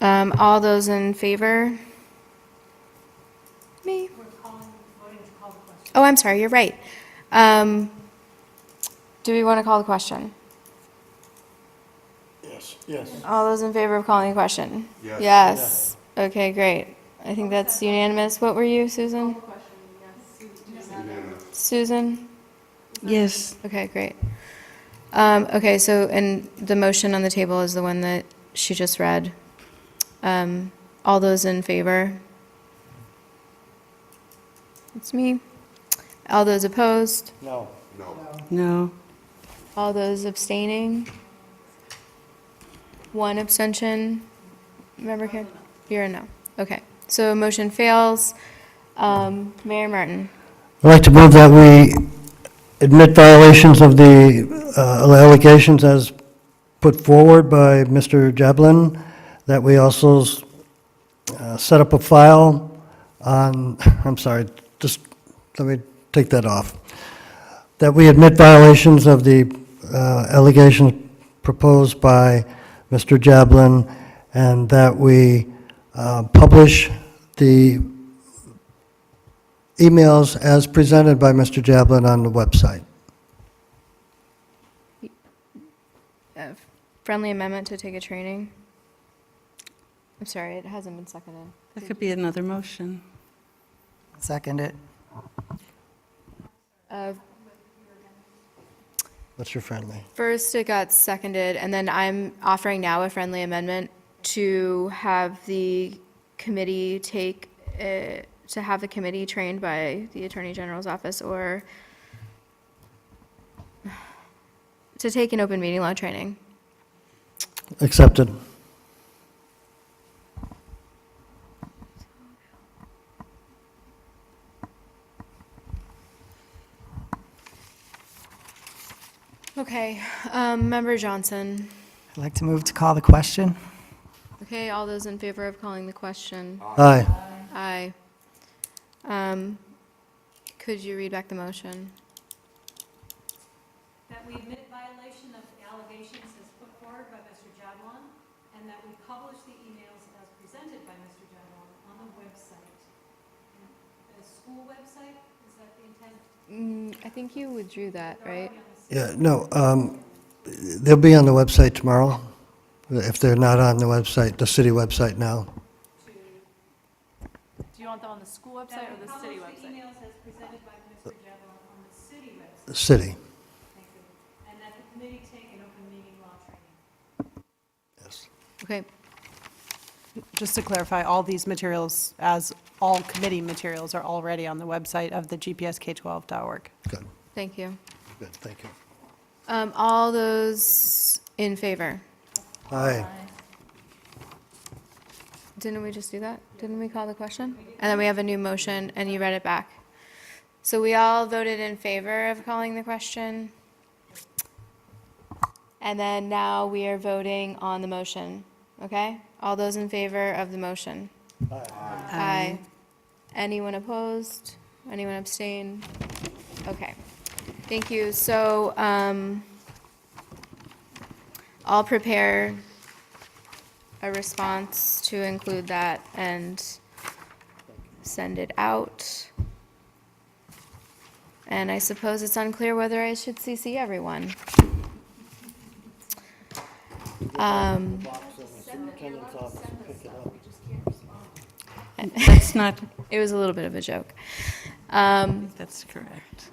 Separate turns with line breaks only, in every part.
Um, all those in favor? Me? Oh, I'm sorry, you're right. Um, do we want to call the question?
Yes, yes.
All those in favor of calling the question?
Yes.
Yes. Okay, great. I think that's unanimous. What were you, Susan? Susan?
Yes.
Okay, great. Um, okay, so, and the motion on the table is the one that she just read. Um, all those in favor? It's me. All those opposed?
No.
No.
No.
All those abstaining? One abstention? Member Kim? You're a no. Okay, so motion fails. Um, Mayor Martin?
I'd like to move that we admit violations of the uh, allegations as put forward by Mr. Jablin, that we also uh, set up a file on, I'm sorry, just, let me take that off. That we admit violations of the uh, allegations proposed by Mr. Jablin, and that we uh, publish the emails as presented by Mr. Jablin on the website.
a Friendly amendment to take a training? I'm sorry, it hasn't been seconded.
That could be another motion.
Second it.
Uh,
What's your friendly?
First, it got seconded, and then I'm offering now a friendly amendment to have the committee take, uh, to have the committee trained by the Attorney General's office or to take an open meeting law training.
Accepted.
Okay, um, Member Johnson.
I'd like to move to call the question.
Okay, all those in favor of calling the question?
Aye.
Aye. Um, Could you read back the motion?
That we admit violation of allegations as put forward by Mr. Jablon, and that we publish the emails as presented by Mr. Jablon on the website. The school website, is that the intent?
Mm, I think you withdrew that, right?
Yeah, no, um, they'll be on the website tomorrow, if they're not on the website, the city website now.
Do you want them on the school website or the city
Publish the
website?
emails as presented by Mr. Jablon on the city website,
City.
thank you. And that the committee take an open meeting law
Okay,
training.
Just to clarify, all these materials, as all committee materials, are already on the website of the gpsk12.org.
Good,
thank you.
good, thank you.
Um, all those in favor?
Aye.
Didn't we just do that? Didn't we call the question? And then we have a new motion, and you read it back. So we all voted in favor of calling the question. And then now we are voting on the motion, okay? All those in favor of the motion? Aye. Anyone opposed? Anyone abstain? Okay. Thank you. So, um, I'll prepare a response to include that and send it out. And I suppose it's unclear whether I should CC everyone. Um,
That's not,
it was a little bit of a joke. Um,
that's correct.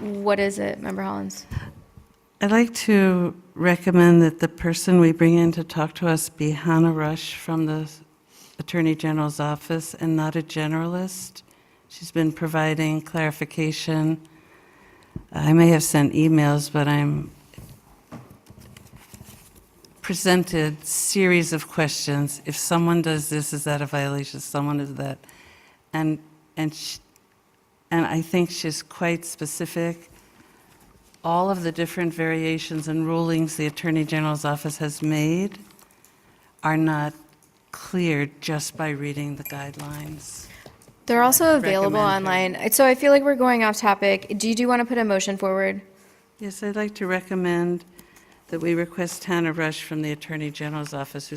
what is it, Member Hollins?
I'd like to recommend that the person we bring in to talk to us be Hannah Rush from the Attorney General's office and not a generalist. She's been providing clarification. I may have sent emails, but I'm presented series of questions. If someone does this, is that a violation? Someone is that? And, and, sh- and I think she's quite specific all of the different variations and rulings the Attorney General's office has made are not clear just by reading the guidelines.
They're also available
Recommend
online. So I feel like we're going off topic. Do you, do you want to put a motion forward?
Yes, I'd like to recommend that we request Hannah Rush from the Attorney General's office, who